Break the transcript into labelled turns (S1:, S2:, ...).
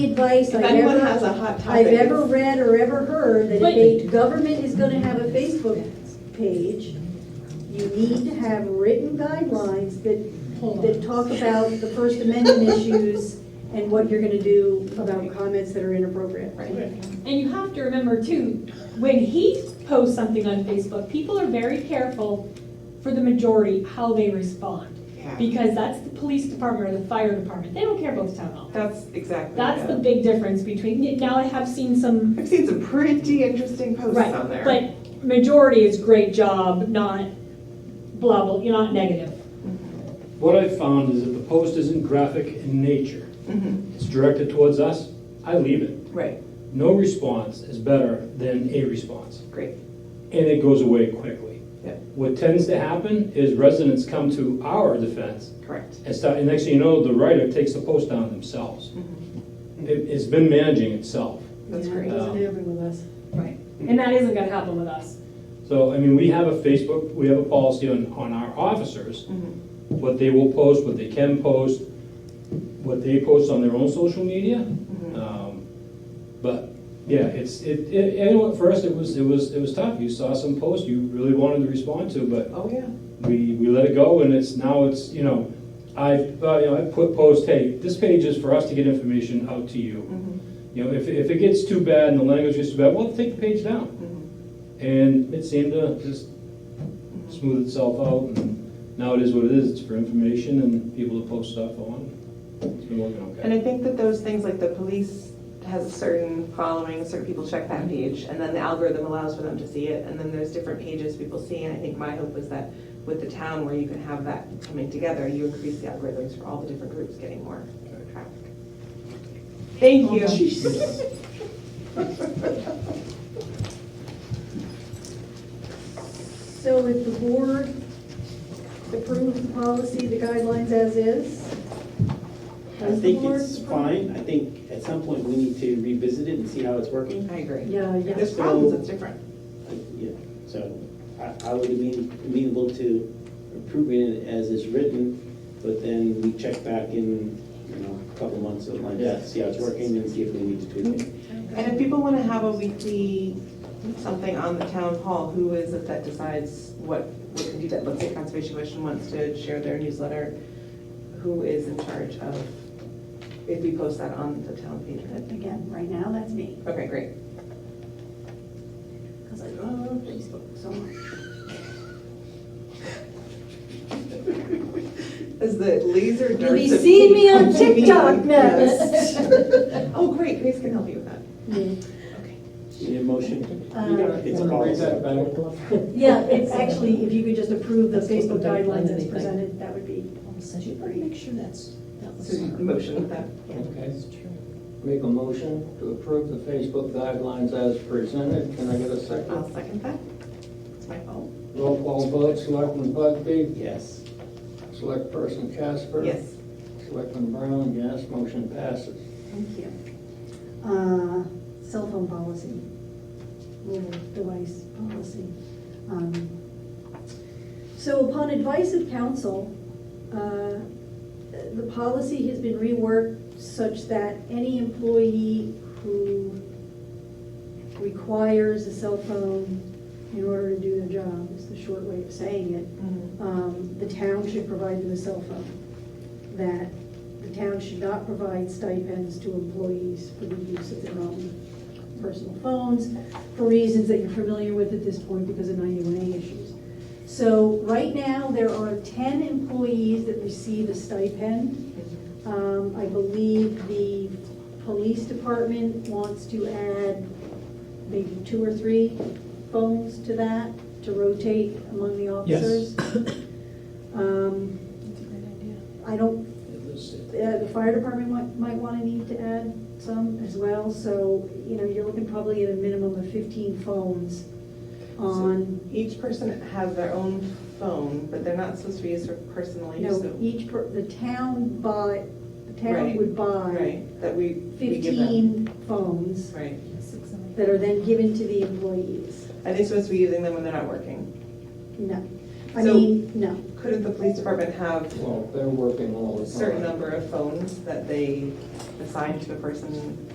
S1: advice
S2: If
S1: I've
S2: anyone
S1: ever,
S2: has a hot
S1: I've
S2: topic,
S1: ever
S2: it's-
S1: read or ever heard that if
S3: Wait.
S1: a government is gonna have a Facebook page, you need to have written guidelines that,
S3: Hold
S1: that talk about the First Amendment issues and what you're gonna do about comments that are inappropriate.
S3: Right. And you have to remember too, when he posts something on Facebook, people are very careful for the majority how they respond.
S2: yeah,
S3: Because that's the police department or the fire department. They don't care about the town hall.
S2: that's exactly
S3: That's the
S2: it.
S3: big difference between, now I have seen some,
S2: I've seen some pretty interesting posts
S3: right,
S2: on there.
S3: but majority is great job, not blah, blah, you're not negative.
S4: What I've found is if the post isn't graphic in nature,
S2: Mhm,
S4: it's directed towards us, I leave it.
S2: Right,
S4: No response is better than a response,
S2: great,
S4: and it goes away quickly.
S2: Yeah.
S4: What tends to happen is residents come to our defense
S2: correct.
S4: and start, and next thing you know, the writer takes the post down themselves.
S2: Mm-hmm,
S4: It- It's been managing itself.
S2: That's
S1: Yeah,
S2: great.
S1: It doesn't happen with us.
S3: Right. And that isn't gonna happen with us.
S4: So, I mean, we have a Facebook, we have a policy on, on our officers,
S2: Mhm,
S4: what they will post, what they can post, what they post on their own social media,
S2: mhm.
S4: Um, But, yeah, it's, it, it- and for us, it was, it was, it was tough. You saw some posts you really wanted to respond to, but
S2: Oh, yeah.
S4: we, we let it go and it's, now it's, you know, I, uh, you know, I put posts, hey, this page is for us to get information out to you.
S2: Mhm,
S4: You know, if, if it gets too bad and the language gets too bad, well, take the page down.
S2: mhm,
S4: And it seemed to just
S2: mhm.
S4: smooth itself out and now it is what it is. It's for information and people to post stuff on. It's been working okay.
S2: And I think that those things, like the police has a certain following, certain people check that page, and then the algorithm allows for them to see it, and then there's different pages people see, and I think my hope was that with the town where you can have that coming together, you increase the algorithms for all the different groups getting more traffic. Thank you.
S1: So if the board approves the policy, the guidelines as is?
S5: I think it's fine. I think at some point we need to revisit it and see how it's working.
S2: I agree.
S1: Yeah,
S2: If
S1: yeah.
S2: there's problems, it's different.
S5: Uh, Yeah, so I, I would be amenable to approving it as it's written, but then we check back in, you know, a couple months or like that, see how it's working and see if we need to tweak it.
S2: And if people want to have a weekly something on the town hall, who is it that decides what, what can do that? Let's say Conservation Commission wants to share their newsletter, who is in charge of, if we post that on the town page? right?
S1: Again, right now, that's me,
S2: Okay, great.
S1: because I love Facebook so much.
S2: Is the laser darts.
S1: You'll be
S2: of
S1: seeing me on
S2: TV
S1: TikTok
S2: yes. Oh, great, Grace can help you with that.
S5: Need a motion?
S1: Uh,
S5: It's a policy.
S1: Yeah, it's actually, if you could just approve the Facebook guidelines as presented, that would be
S6: Make sure that's, that
S2: So
S6: was.
S2: you motion with that.
S7: Okay, make a motion to approve the Facebook guidelines as presented. Can I get a second?
S2: I'll second that. It's my fault.
S7: Roll call vote, Selectman Bugby,
S5: Yes.
S7: Select Person Casper.
S2: Yes.
S7: Selectman Brown, yes, motion passes.
S1: Thank you. Uh, Cell phone policy, mobile device policy. Um, So upon advice of council, uh, the policy has been reworked such that any employee who requires a cell phone in order to do their job, is the short way of saying it,
S2: Mm-hmm.
S1: um, the town should provide them a cell phone. That the town should not provide stipends to employees for the use of their own personal phones, for reasons that you're familiar with at this point because of 91A issues. So right now, there are 10 employees that receive a stipend. Um, I believe the police department wants to add maybe two or three phones to that, to rotate among the officers.
S4: Yes.
S1: Um, I don't,
S4: It was-
S1: uh, the fire department might, might wanna need to add some as well, so, you know, you're looking probably at a minimum of fifteen phones on,
S2: Each person has their own phone, but they're not supposed to be used for personal
S1: you
S2: use.
S1: know,
S2: so-
S1: each, per- the town buy, the town
S2: Right,
S1: would buy
S2: Right, that we, we give them.
S1: fifteen phones
S2: Right.
S1: that are then given to the employees.
S2: Are they supposed to be using them when they're not working?
S1: No, I
S2: So-
S1: mean, no.
S2: Couldn't the police department have
S7: Well, they're working all the
S2: a
S7: time.
S2: certain number of phones that they assign to the person